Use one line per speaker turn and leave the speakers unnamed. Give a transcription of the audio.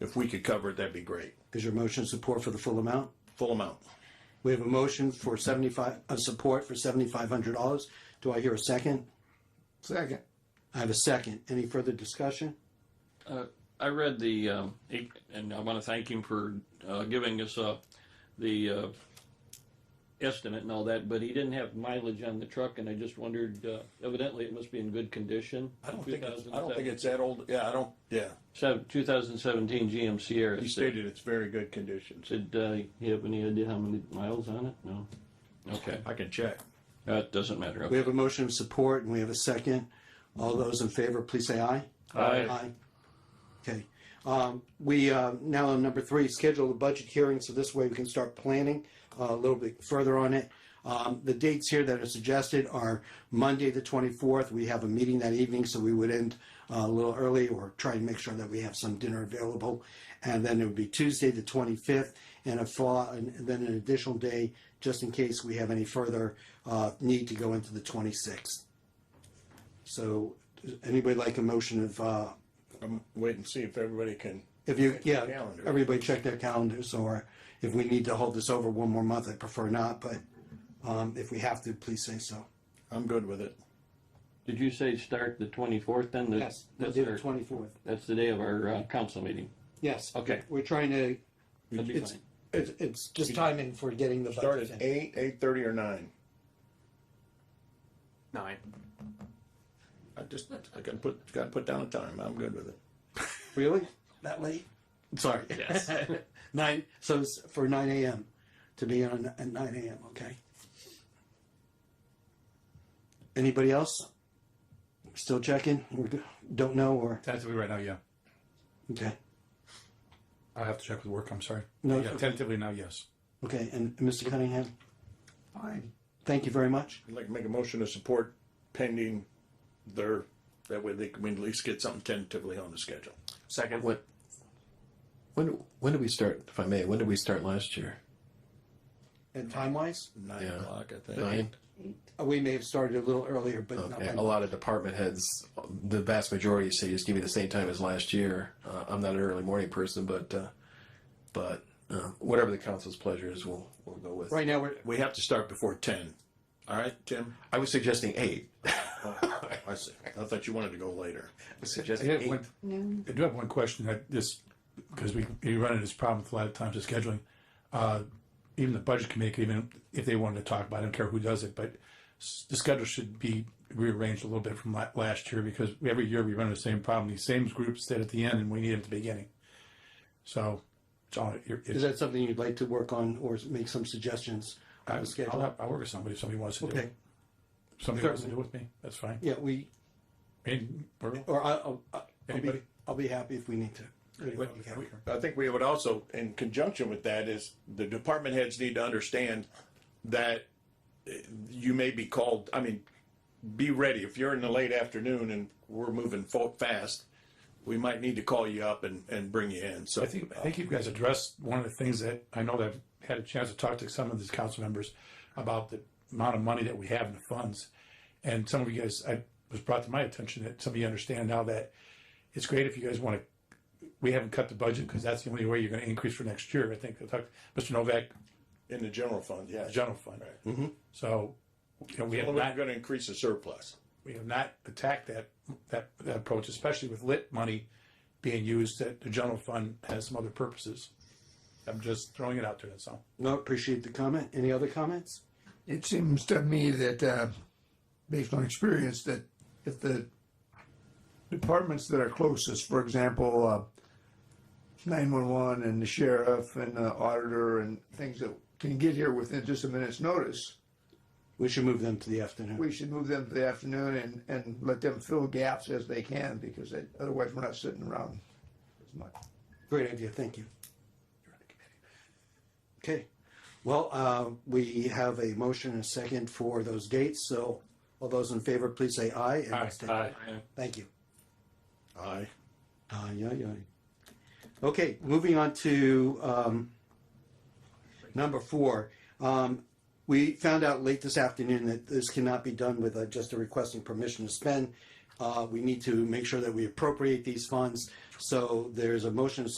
If we could cover it, that'd be great.
Is your motion support for the full amount?
Full amount.
We have a motion for seventy-five, uh, support for seventy-five hundred dollars. Do I hear a second?
Second.
I have a second. Any further discussion?
I read the, um, it- and I want to thank him for uh, giving us uh, the uh, estimate and all that, but he didn't have mileage on the truck, and I just wondered, uh, evidently it must be in good condition.
I don't think, it's- I don't think it's that old. Yeah, I don't, yeah.
Seven- 2017 GM Sierra.
He stated it's very good conditions.
Did uh, you have any idea how many miles on it? No? Okay,
I can check.
that doesn't matter.
We have a motion of support and we have a second. All those in favor, please say aye.
Aye.
Okay. Um, we, uh, now on number three, schedule the budget hearing, so this way we can start planning uh, a little bit further on it. Um, the dates here that are suggested are Monday, the twenty-fourth. We have a meeting that evening, so we would end uh, a little early or try and make sure that we have some dinner available. And then it would be Tuesday, the twenty-fifth, and a fall, and then an additional day, just in case we have any further, uh, need to go into the twenty-sixth. So, does anybody like a motion of, uh,
I'm waiting to see if everybody can.
if you,
Check
yeah,
their calendar.
everybody check their calendars, or if we need to hold this over one more month, I prefer not, but um, if we have to, please say so.
I'm good with it.
Did you say start the 24th then? The-
We'll
That's
do the
our,
twenty-fourth.
that's the day of our uh, council meeting.
Yes.
Okay.
We're trying to,
That'd be
it's,
fine.
it's, it's just timing for getting the
Start
budget
at
in.
eight, eight thirty or nine.
Nine.
I just, I gotta put, gotta put down a time. I'm good with it.
Really? That late? Sorry. Yes. Nine, so it's for nine AM, to be on at nine AM, okay? Anybody else? Still checking? We're go- Don't know, or,
Tentatively right now, yeah.
okay,
I'll have to check with work, I'm sorry.
No,
Yeah,
it's-
tentatively now, yes.
okay, and Mr. Cunningham?
Fine.
Thank you very much.
I'd like to make a motion to support pending their, that way they can we at least get something tentatively on the schedule.
Second.
What? When when did we start? If I may, when did we start last year?
And time wise,
Nine
Yeah.
o'clock, I think.
Nine.
we may have started a little earlier, but not
Okay.
by
A lot of department heads, the vast majority say just give me the same time as last year. Uh, I'm not an early morning person, but uh, but uh, whatever the council's pleasure is, we'll we'll go with.
Right now, we're,
We have to start before ten. All right, Tim?
I was suggesting eight.
I see. I thought you wanted to go later.
suggesting
I,
eight.
have one, I do have one question that this, because we, we run into this problem with a lot of times with scheduling. Uh, even the budget committee, could even if they wanted to talk about it, I don't care who does it, but s- the schedule should be rearranged a little bit from la- last year because every year we run into the same problem. These same groups sit at the end and we need them at the beginning. So it's all, you're-
is
it's,
that something you'd like to work on or make some suggestions on
I'll,
the schedule?
I'll, I'll work with somebody if somebody wants to do
Okay,
it. Somebody wants to do it with me, that's fine.
yeah, we,
And we're-
or I, I'll, I'll be,
Anybody?
I'll be happy if we need to.
What-
Okay.
we-
I think we would also, in conjunction with that, is the department heads need to understand that eh, you may be called, I mean, be ready. If you're in the late afternoon and we're moving fo- fast, we might need to call you up and, and bring you in, so.
I think, I think you guys addressed one of the things that, I know that I've had a chance to talk to some of these council members about the amount of money that we have in the funds. And some of you guys, I was brought to my attention that some of you understand now that it's great if you guys want to, we haven't cut the budget because that's the only way you're going to increase for next year. I think I talked, Mr. Novak,
In the general fund, yeah.
the general fund. So, you know, we have
Well, We're
not,
gonna increase the surplus.
we have not attacked that, that, that approach, especially with lit money being used that the general fund has some other purposes. I'm just throwing it out there, that's all.
No, appreciate the comment. Any other comments?
It seems to me that, uh, based on experience, that if the departments that are closest, for example, uh, 911 and the sheriff and the auditor and things that can get here within just a minute's notice,
We should move them to the afternoon.
we should move them to the afternoon and, and let them fill gaps as they can because they, otherwise we're not sitting around as much.
Great idea, thank you. Okay, well, uh, we have a motion and a second for those dates, so all those in favor, please say aye. and abstain. Thank you.
Aye.
Aye, aye, aye. Okay, moving on to um, number four. Um, We found out late this afternoon that this cannot be done with uh, just a requesting permission to spend. Uh, We need to make sure that we appropriate these funds. So there's a motion to